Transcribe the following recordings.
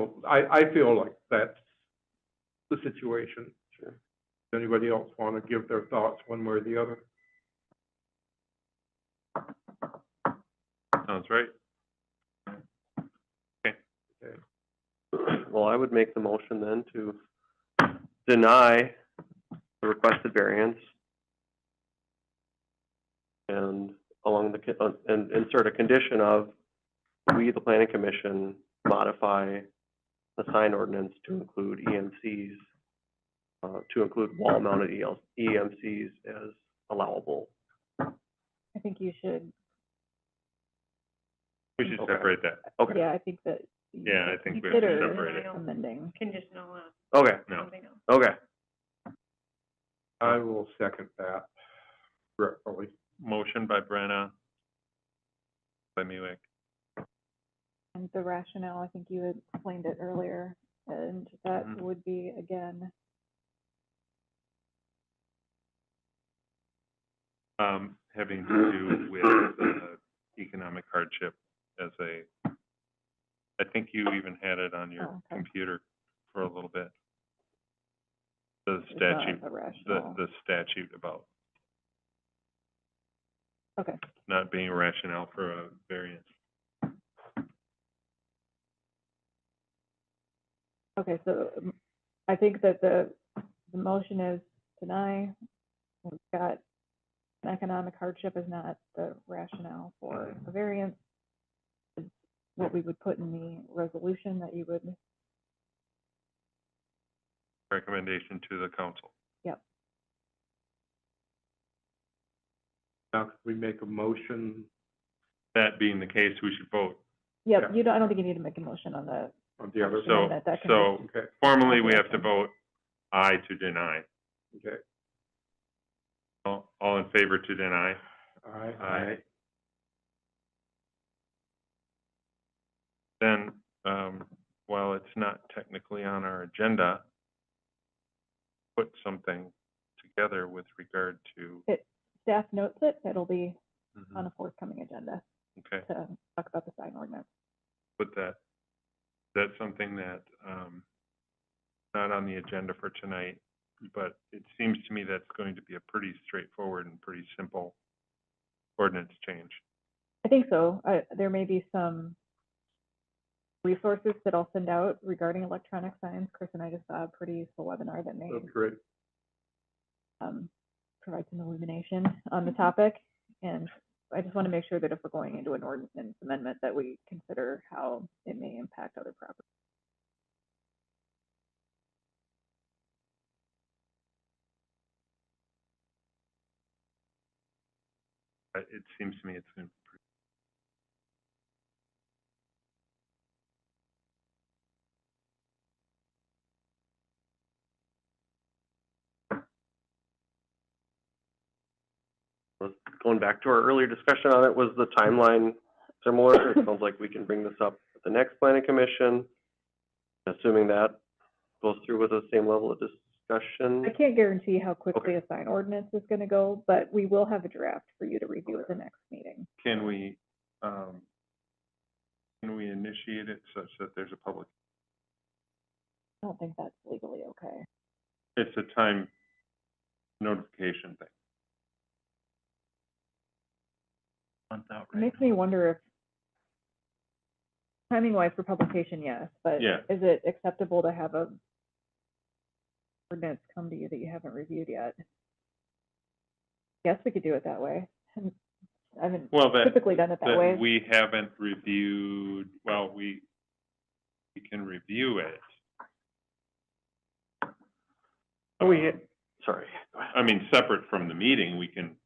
So I, I feel like that's the situation. Sure. Does anybody else want to give their thoughts one way or the other? Sounds right. Well, I would make the motion then to deny the requested variance and along the, con- uh, and insert a condition of, we, the planning commission, modify the sign ordinance to include EMCs, uh, to include wall-mounted E EL EMCs as allowable. I think you should, We should Okay. separate that. Okay, yeah, I think that. you Yeah, I should think we have to consider separate it. Amending. conditional on okay, No. something else. okay. I will second that regretfully. Motion by Brenna. By Muick. And the rationale, I think you had explained it earlier, and that Mhm. would be, again, Um, having to do with, uh, economic hardship as a, I think you even had it on your Oh, okay. computer for a little bit. The it's not statute, a the, rationale. the statute about Okay, not being rationale for a variance. okay, so um, I think that the, the motion is deny. We've got an economic hardship is not the rationale for Mm-hmm. a variance. It's What we would put in the resolution that you would, Recommendation to the council. Now, could we make a motion That being the case, we should vote. yeah, Yeah. you don't, I don't think you need to make a motion on the on the other? Sure. So, Amendment, that can be- so Okay, formally, we have to vote aye to deny. okay. All, all in favor to deny? Aye. Aye. Then, um, while it's not technically on our agenda, put something together with regard to, staff notes it, it'll be on a forthcoming agenda okay, to talk about the sign ordinance. put that, that's something that, um, not on the agenda for tonight, but it seems to me that's going to be a pretty straightforward and pretty simple ordinance change. I think so. I, there may be some resources that I'll send out regarding electronic signs. Chris and I just saw a pretty useful webinar that may That's great. um, provide some illumination on the topic. And I just want to make sure that if we're going into an ordinance amendment, that we consider how it may impact other properties. I- Uh, It seems to me it's going to be pretty. going back to our earlier discussion on it, was the timeline similar? It sounds like we can bring this up at the next planning commission, assuming that goes through with the same level of discussion. I can't guarantee how quickly a sign ordinance is going to go, but we will have a draft for you to review at the next meeting. Can we, um, can we initiate it such that there's a public, I don't think that's legally okay. it's a time notification thing? It makes me wonder if, timing wise for publication, yes, but Yeah. is it acceptable to have a ordinance come to you that you haven't reviewed yet? Guess we could do it that way. And I haven't Well, that, typically done it that that way. we haven't reviewed, well, we, we can review it. Oh, We, sorry, I mean, separate from the meeting, we can,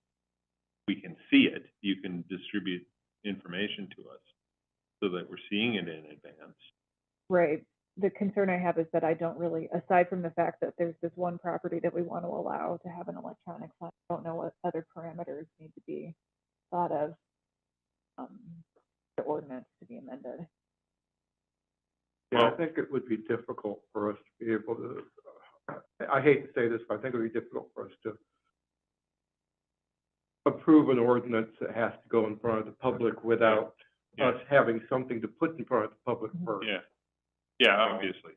we can see it. You can distribute information to us so that we're seeing it in advance. Right. The concern I have is that I don't really, aside from the fact that there's this one property that we want to allow to have an electronic sign, I don't know what other parameters need to be thought of. um, The ordinance to be amended. Yeah, I Well- think it would be difficult for us to be able to, I I hate to say this, but I think it would be difficult for us to approve an ordinance that has to go in front of the public without Yeah. us having something to put in front of the public Mhm. first. Yeah, Yeah, obviously.